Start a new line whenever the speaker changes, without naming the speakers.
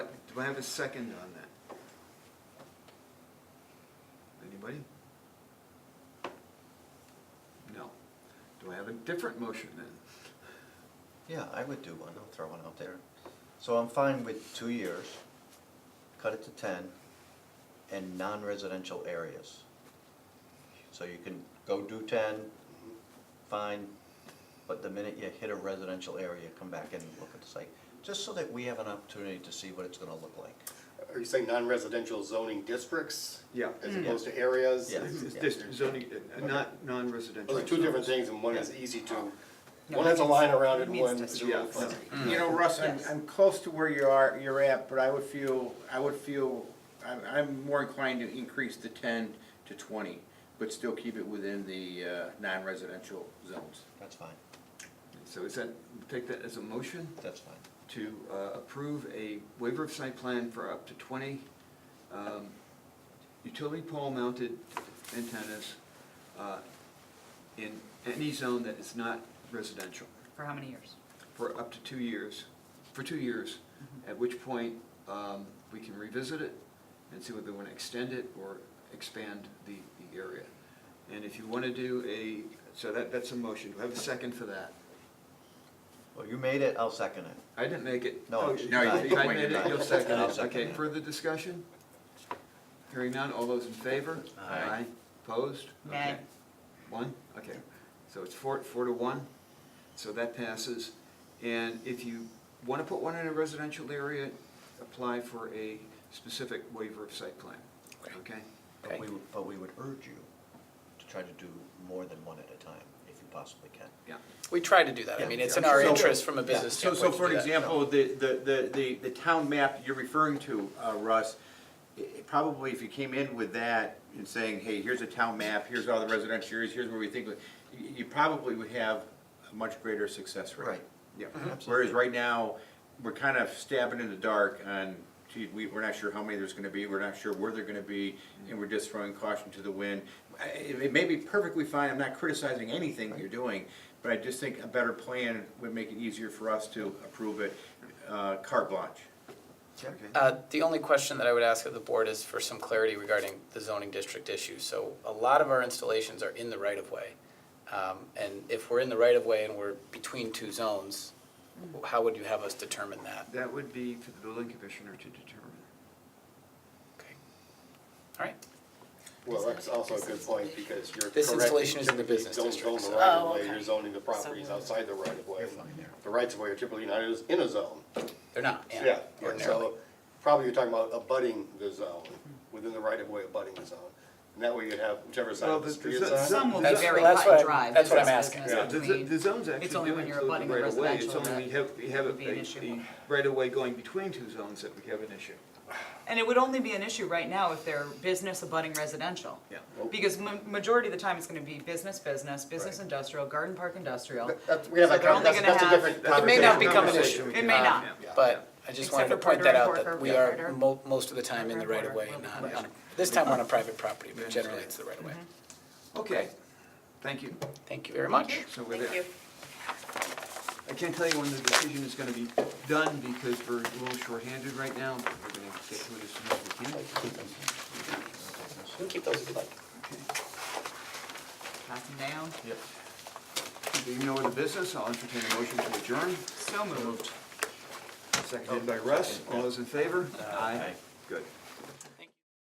Do I have a second on that? Anybody? No. Do I have a different motion then?
Yeah, I would do one, I'll throw one out there. So I'm fine with two years, cut it to ten, and non-residential areas. So you can go do ten, fine, but the minute you hit a residential area, come back and look at the site, just so that we have an opportunity to see what it's gonna look like.
Are you saying non-residential zoning districts?
Yeah.
As
Hmm.
opposed to areas?
Yeah.
It's just zoning, uh, not non-residential.
Those are two different things, and one is
Yeah.
easy to,
No,
one has a
it means-
line around it,
it means
one is really
districts. Yeah.
fuzzy.
You know, Russ, I'm,
Yes.
I'm close to where you are, you're at, but I would feel, I would feel, I'm, I'm more inclined to increase the ten to twenty, but still keep it within the, uh, non-residential zones.
That's fine,
So is that, take that as a motion
that's fine.
to uh, approve a waiver of site plan for up to twenty um, utility pole mounted antennas uh, in any zone that is not residential.
For how many years?
for up to two years, for two years, at which point um, we can revisit it and see whether we want to extend it or expand the, the area. And if you want to do a, so that, that's a motion, do I have a second for that?
Well, you made it, I'll second it.
I didn't make it.
No,
Oh,
you
No,
did
you
I
not.
made it,
did
you'll second
I'll
it, okay,
it.
further discussion? Hearing none, all those in favor?
Aye.
Opposed?
Nay.
Okay. One, okay, so it's four, four to one, so that passes. And if you wanna put one in a residential area, apply for a specific waiver of site plan, okay?
But we, would- but we would urge you to try to do more than one at a time, if you possibly can.
Yeah,
We try to do that. I mean, it's in our
So-
interest from a business
So,
standpoint.
so
to
for
do that.
example, the, the, the, the, the town map you're referring to, uh, Russ, i- i- probably if you came in with that and saying, hey, here's a town map, here's all the residential areas, here's where we think, you, you probably would have a much greater success rate.
Right.
Yeah. Whereas
Absolutely.
right now, we're kind of stabbing in the dark on, gee, we, we're not sure how many there's gonna be, we're not sure where they're gonna be, and we're just throwing caution to the wind. I- It, it may be perfectly fine, I'm not criticizing anything that you're doing, but I just think a better plan would make it easier for us to approve it, uh, carte blanche.
Uh, The only question that I would ask of the board is for some clarity regarding the zoning district issue. So a lot of our installations are in the right-of-way. Um, And if we're in the right-of-way and we're between two zones, how would you have us determine that?
that would be for the building commissioner to determine.
Okay. All right.
Well, that's also a good point, because you're correct.
This installation is in the
Typically,
business
You don't
district,
own
so-
the right of
Oh,
way,
okay.
you're zoning the properties
So-
outside the right of way.
You're fine there.
The rights of way are typically not in- in a zone.
They're not, yeah,
Yeah, and
ordinarily.
so probably you're talking about abutting the zone, within the right of way abutting the zone. And that way you'd have whichever side
Well,
of the
the-
street
the-
it's on.
Some will be
That's-
very
that's
cut
what
and
I-
dry.
that's what
There's
I'm
business
asking.
Yeah, the, the-
between-
the zones
It's
actually
only
do
when you're
include
abutting
the
a
right of way, it's
residential
only we
that
have, we have a,
would be an
a-
issue.
a right of way going between two zones that we have an issue.
And it would only be an issue right now if they're business abutting residential.
Yeah.
Because ma- majority of the time, it's gonna be business, business, business industrial, garden park industrial.
That's, we have
So
a,
they're
con-
only
that's,
gonna
that's a
have-
different
It may
conversation.
not become an
Conversation
issue.
we
It
can
may
have.
not.
Yeah.
But I just
Except
wanted to
for
point
Porter
that
and
out,
Porter,
that we
yeah,
are
Porter.
mo- most of the time in the
Porter
right
and
of way,
Porter. Mm-hmm.
not on, a- this time we're on a private property, but generally it's the right of way.
Okay, thank you.
Thank you very much.
So we're there. I can't tell you when the decision is gonna be done because we're a little shorthanded right now, but we're gonna get to it as soon as we can.
You can keep those if you'd like.
Pass them down.
Yep.
Being no other business, I'll entertain a motion to adjourn.
So moved.
Seconded by Russ. All those in favor? Aye. Good.